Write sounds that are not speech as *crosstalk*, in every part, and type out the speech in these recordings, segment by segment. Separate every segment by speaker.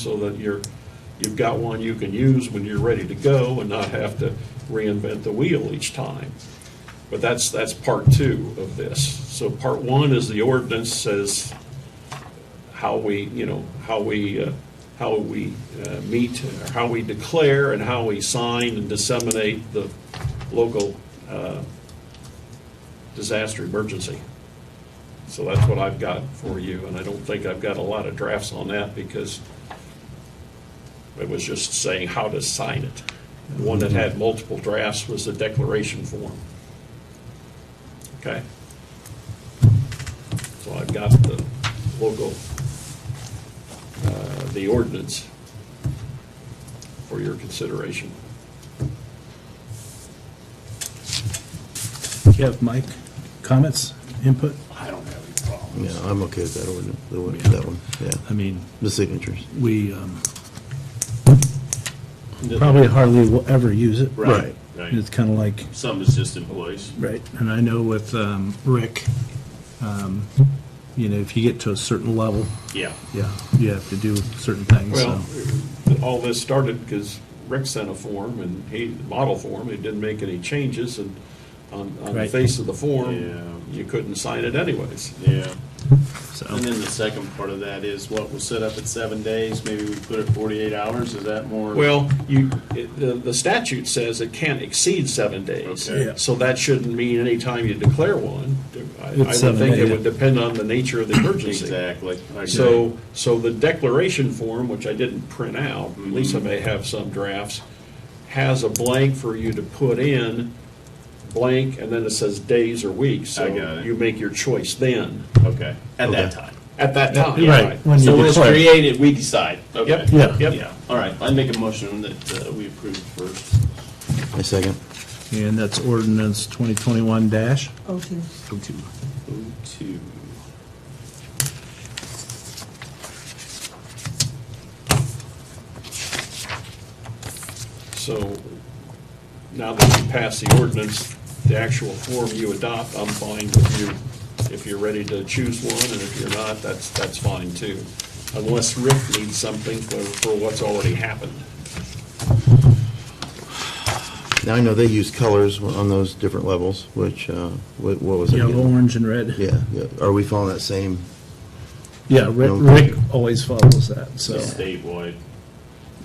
Speaker 1: so that you're, you've got one you can use when you're ready to go and not have to reinvent the wheel each time. But that's, that's part two of this. So part one is the ordinance says how we, you know, how we, uh, how we uh, meet, or how we declare and how we sign and disseminate the local uh, disaster emergency. So that's what I've got for you, and I don't think I've got a lot of drafts on that because it was just saying how to sign it. The one that had multiple drafts was the declaration form. Okay? So I've got the local, uh, the ordinance for your consideration.
Speaker 2: You have Mike, comments, input?
Speaker 1: I don't have any problem.
Speaker 3: Yeah, I'm okay with that ordinance, the one, that one, yeah,
Speaker 2: I mean,
Speaker 3: the signatures.
Speaker 2: we um, probably hardly will ever use it.
Speaker 3: Right.
Speaker 2: It's kind of like,
Speaker 4: Some is just employees.
Speaker 2: right, and I know with um, Rick, um, you know, if you get to a certain level,
Speaker 4: Yeah.
Speaker 2: yeah, you have to do certain things, so.
Speaker 1: Well, all this started because Rick sent a form and he, model form, it didn't make any changes and on, on the
Speaker 2: Right.
Speaker 1: face of the
Speaker 4: Yeah.
Speaker 1: form, you couldn't sign it anyways.
Speaker 4: Yeah.
Speaker 2: so.
Speaker 4: And then the second part of that is what was set up at seven days, maybe we put it forty-eight hours, is that more?
Speaker 1: Well, you, it- the the statute says it can't exceed seven days.
Speaker 4: Okay. Yeah.
Speaker 1: So that shouldn't mean any time you declare one. I- I would
Speaker 2: seven
Speaker 1: think it
Speaker 2: days.
Speaker 1: would depend on the nature of the emergency.
Speaker 4: Exactly. Okay.
Speaker 1: So, so the declaration form, which I didn't print out,
Speaker 4: Mm-hmm.
Speaker 1: Lisa may have some drafts, has a blank for you to put in, blank, and then it says days or weeks.
Speaker 4: I got
Speaker 1: So
Speaker 4: it.
Speaker 1: you make your choice then,
Speaker 4: Okay, at that
Speaker 3: Okay.
Speaker 4: time.
Speaker 1: at that time.
Speaker 2: Right, when you
Speaker 4: So when it's
Speaker 2: declare.
Speaker 4: created, we decide. Okay.
Speaker 1: Yep,
Speaker 2: Yeah.
Speaker 1: yep.
Speaker 4: Yeah, all right, I make a motion that uh, we approve first.
Speaker 3: My second.
Speaker 2: And that's ordinance 2021 dash?
Speaker 5: Oh, two.
Speaker 2: Oh, two.
Speaker 4: O two.
Speaker 1: So now that you pass the ordinance, the actual form you adopt, I'm fine with you. If you're ready to choose one, and if you're not, that's, that's fine too. Unless Rick needs something for, for what's already happened.
Speaker 3: Now, I know they use colors on those different levels, which, uh, what what was it?
Speaker 2: Yellow,
Speaker 3: again?
Speaker 2: orange, and red.
Speaker 3: Yeah, yeah, are we following that same,
Speaker 2: Yeah, Rick, Rick always follows that, so,
Speaker 4: Statewide.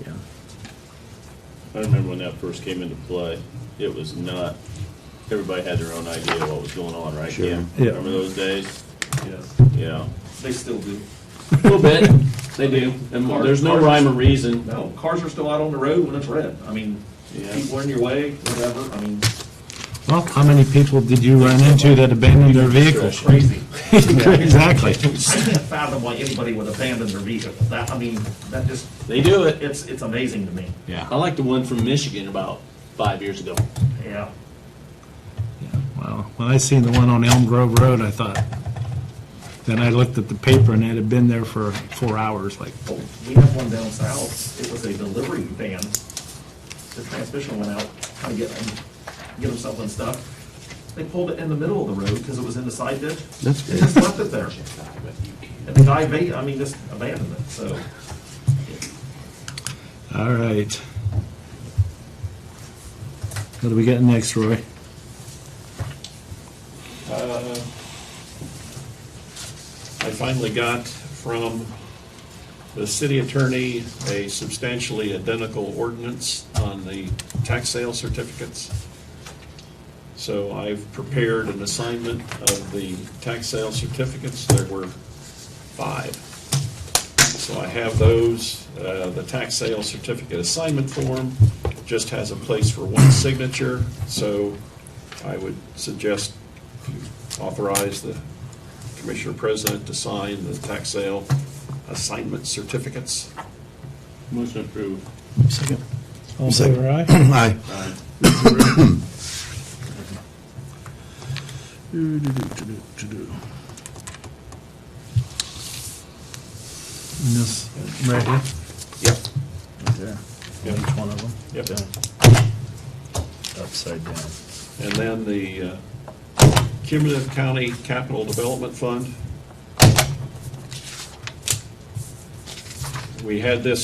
Speaker 2: yeah.
Speaker 4: I remember when that first came into play, it was not, everybody had their own idea of what was going on, right?
Speaker 3: Sure.
Speaker 4: Yeah.
Speaker 2: Yeah.
Speaker 4: Remember those days? Yeah.
Speaker 6: They still do.
Speaker 4: A little bit, they do, and
Speaker 6: Cars-
Speaker 4: there's no
Speaker 6: cars-
Speaker 4: rhyme or reason.
Speaker 6: No, cars are still out on the road when it's red. I mean,
Speaker 4: Yeah.
Speaker 6: people in your way, whatever, I mean,
Speaker 2: Well, how many people did you run into that abandoned their
Speaker 6: it's
Speaker 2: vehicles?
Speaker 6: crazy.
Speaker 2: *laughs* Exactly.
Speaker 6: I can't fathom why anybody would abandon their vehicle. That, I mean, that just,
Speaker 4: They do it.
Speaker 6: it's, it's amazing to me.
Speaker 2: Yeah.
Speaker 4: I like the one from Michigan about five years ago.
Speaker 6: Yeah.
Speaker 2: Well, when I seen the one on Elm Grove Road, I thought, then I looked at the paper and it had been there for four hours, like,
Speaker 6: Oh, We have one down south. It was a delivery van. The transmission went out, trying to get, um, get himself unstuck. They pulled it in the middle of the road because it was in the side ditch.
Speaker 3: That's
Speaker 6: They just left it there. And the guy, va- I mean, just abandoned it, so.
Speaker 2: all right. What do we got next, Roy?
Speaker 1: I finally got from the city attorney a substantially identical ordinance on the tax sale certificates. So I've prepared an assignment of the tax sale certificates. There were five. So I have those, uh, the tax sale certificate assignment form just has a place for one signature, so I would suggest you authorize the Commissioner President to sign the tax sale assignment certificates.
Speaker 4: Motion approved.
Speaker 2: Second. All in
Speaker 3: Second.
Speaker 2: favor, aye?
Speaker 3: aye,
Speaker 2: And this, right here?
Speaker 1: Yep.
Speaker 2: Right there.
Speaker 1: Yep.
Speaker 2: Each one of them?
Speaker 1: Yep.
Speaker 2: Upside down.
Speaker 1: And then the uh, cumulative county capital development fund. We had this